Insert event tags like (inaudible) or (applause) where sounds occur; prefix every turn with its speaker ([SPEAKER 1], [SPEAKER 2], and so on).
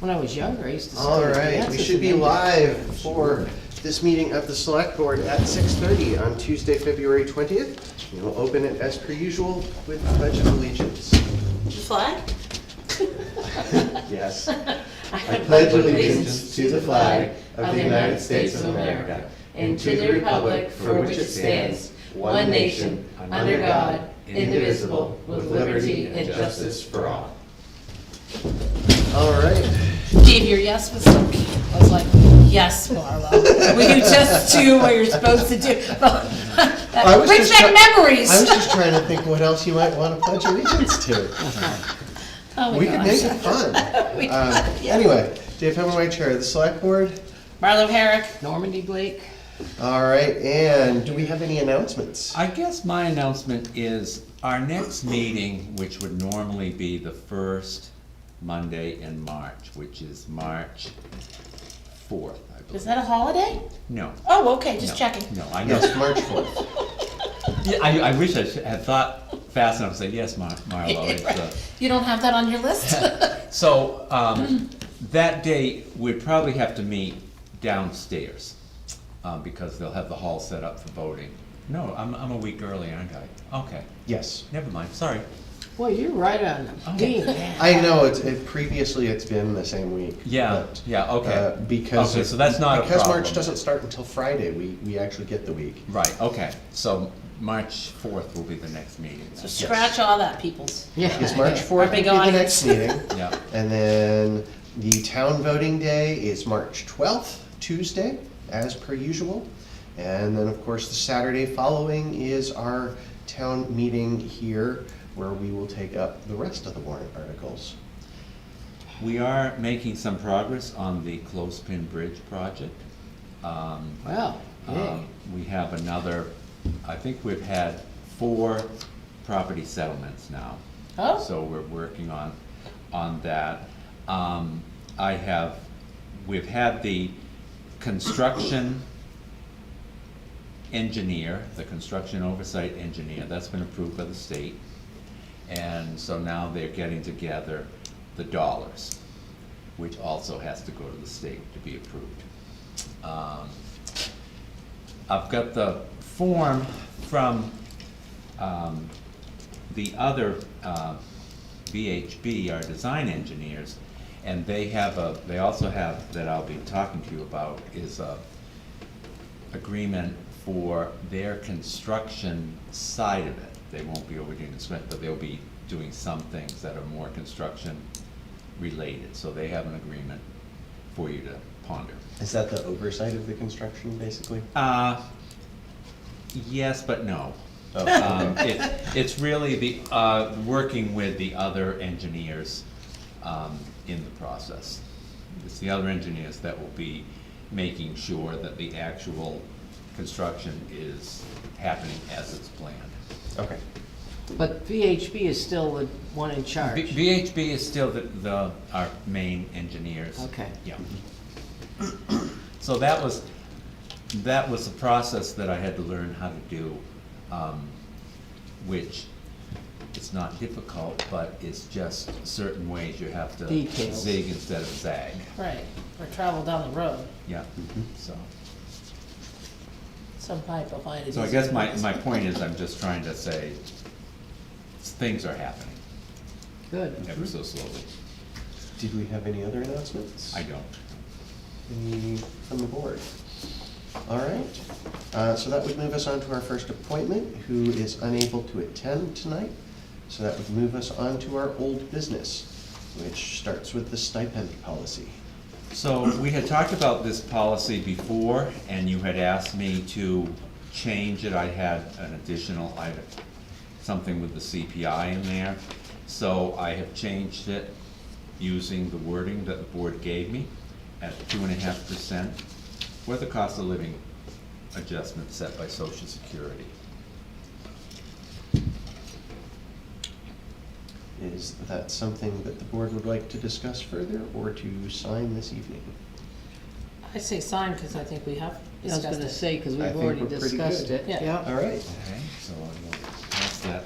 [SPEAKER 1] When I was younger, I used to.
[SPEAKER 2] All
[SPEAKER 1] study
[SPEAKER 2] right, we
[SPEAKER 1] dances
[SPEAKER 2] should be
[SPEAKER 1] and-
[SPEAKER 2] live for this meeting of the Select Board at 6:30 on Tuesday, February 20th. And We'll open it as per usual with the Pledge of Allegiance.
[SPEAKER 3] The flag?
[SPEAKER 2] (laughs)
[SPEAKER 1] (laughs)
[SPEAKER 2] Yes.
[SPEAKER 1] I
[SPEAKER 2] pledge allegiance to the flag of the United States of America
[SPEAKER 1] and to the republic for which it stands, one nation, under God, indivisible, with liberty and justice for all.
[SPEAKER 2] All right.
[SPEAKER 3] Dave, your yes was so cute. I was like, yes, Marlo. Will you just do what you're supposed to do? (laughs)
[SPEAKER 2] I was
[SPEAKER 3] Brings
[SPEAKER 2] just try-
[SPEAKER 3] back memories.
[SPEAKER 2] I was
[SPEAKER 3] (laughs)
[SPEAKER 2] just trying to think what else you might want to pledge allegiance to.
[SPEAKER 3] Oh my
[SPEAKER 2] We could
[SPEAKER 3] gosh.
[SPEAKER 2] make it fun.
[SPEAKER 3] (laughs) We could,
[SPEAKER 2] Um,
[SPEAKER 3] yeah.
[SPEAKER 2] Anyway, Dave Hemmerway, Chair of the Select Board.
[SPEAKER 3] Marlo Herrick.
[SPEAKER 1] Normandy Blake,
[SPEAKER 2] All right, and do we have any announcements?
[SPEAKER 4] I guess my announcement is our next meeting, which would normally be the first Monday in March, which is March fourth, I
[SPEAKER 3] Is
[SPEAKER 4] believe.
[SPEAKER 3] that a holiday?
[SPEAKER 4] No.
[SPEAKER 3] Oh, okay, just
[SPEAKER 4] no,
[SPEAKER 3] checking.
[SPEAKER 4] No, I know.
[SPEAKER 2] Yes, March 4th.
[SPEAKER 4] Yeah, (laughs) I, I wish I should- had thought fast enough to say, yes, Mar- Marlo, it's, uh,
[SPEAKER 3] You don't have that on your list? (laughs)
[SPEAKER 4] So, um, that day, we'd probably have to meet downstairs, um, because they'll have the hall set up for voting. No, I'm, I'm a week early, aren't I? Okay,
[SPEAKER 2] Yes.
[SPEAKER 4] never mind, sorry.
[SPEAKER 1] boy, you're right on the
[SPEAKER 4] Oh.
[SPEAKER 1] beam, man.
[SPEAKER 2] I know, it's, it, previously it's been the same week.
[SPEAKER 4] Yeah,
[SPEAKER 2] but,
[SPEAKER 4] yeah,
[SPEAKER 2] uh,
[SPEAKER 4] okay.
[SPEAKER 2] Because.
[SPEAKER 4] Okay, so that's not a
[SPEAKER 2] Because March
[SPEAKER 4] problem.
[SPEAKER 2] doesn't start until Friday, we, we actually get the week.
[SPEAKER 4] Right, okay, so March fourth will be the next meeting.
[SPEAKER 3] So scratch all that, peoples.
[SPEAKER 2] (laughs) Yes,
[SPEAKER 1] Yeah.
[SPEAKER 2] March fourth will be
[SPEAKER 3] big
[SPEAKER 2] the
[SPEAKER 3] audience.
[SPEAKER 2] next meeting.
[SPEAKER 4] (laughs) Yeah,
[SPEAKER 2] And then the town voting day is March twelfth, Tuesday, as per usual. And then, of course, the Saturday following is our town meeting here, where we will take up the rest of the warrant articles.
[SPEAKER 4] we are making some progress on the Clothespin Bridge project. Um,
[SPEAKER 1] Well,
[SPEAKER 4] Um,
[SPEAKER 1] hey,
[SPEAKER 4] We have another, I think we've had four property settlements now.
[SPEAKER 3] Oh.
[SPEAKER 4] So we're working on, on that. Um, I have, we've had the construction engineer, the construction oversight engineer, that's been approved by the state. And so now they're getting together the dollars, which also has to go to the state to be approved. Um, I've got the form from um, the other uh, VHB, our design engineers, and they have a, they also have, that I'll be talking to you about, is a agreement for their construction side of it. They won't be overdoing the cement, but they'll be doing some things that are more construction related. So they have an agreement for you to ponder.
[SPEAKER 2] Is that the oversight of the construction, basically?
[SPEAKER 4] Uh, yes, but no.
[SPEAKER 2] Oh,
[SPEAKER 4] Um,
[SPEAKER 2] okay.
[SPEAKER 4] it, it's really the, uh, working with the other engineers, um, in the process. It's the other engineers that will be making sure that the actual construction is happening as it's planned.
[SPEAKER 2] Okay.
[SPEAKER 1] but VHB is still the one in
[SPEAKER 4] B-
[SPEAKER 1] charge.
[SPEAKER 4] VHB is still the, the, our main engineers.
[SPEAKER 1] Okay.
[SPEAKER 4] Yeah. So that was, that was the process that I had to learn how to do, um, which it's not difficult, but it's just certain ways you have to
[SPEAKER 1] Details.
[SPEAKER 4] zig instead of zag.
[SPEAKER 3] Right, or travel down the road,
[SPEAKER 4] Yeah, so,
[SPEAKER 3] some pipe will find it.
[SPEAKER 4] so I
[SPEAKER 3] easier
[SPEAKER 4] guess my,
[SPEAKER 3] than
[SPEAKER 4] my
[SPEAKER 3] this.
[SPEAKER 4] point is I'm just trying to say, things are happening
[SPEAKER 1] Good.
[SPEAKER 4] ever so slowly.
[SPEAKER 2] Did we have any other announcements?
[SPEAKER 4] I don't.
[SPEAKER 2] Any from the board? All right, Uh, so that would move us on to our first appointment, who is unable to attend tonight. So that would move us on to our old business, which starts with the stipend policy.
[SPEAKER 4] So we had talked about this policy before, and you had asked me to change it. I had an additional item, something with the CPI in there. So I have changed it using the wording that the board gave me at two and a half percent for the cost of living adjustment set by social security.
[SPEAKER 2] Is that something that the board would like to discuss further or to sign this evening?
[SPEAKER 3] I say sign, because I think we have
[SPEAKER 1] I was
[SPEAKER 3] discussed it.
[SPEAKER 1] gonna say, because
[SPEAKER 2] I
[SPEAKER 1] we've
[SPEAKER 2] think
[SPEAKER 1] already
[SPEAKER 2] we're pretty
[SPEAKER 1] discussed
[SPEAKER 2] good.
[SPEAKER 1] it,
[SPEAKER 3] Yeah.
[SPEAKER 1] yeah.
[SPEAKER 2] All right.
[SPEAKER 4] Okay, so I will pass that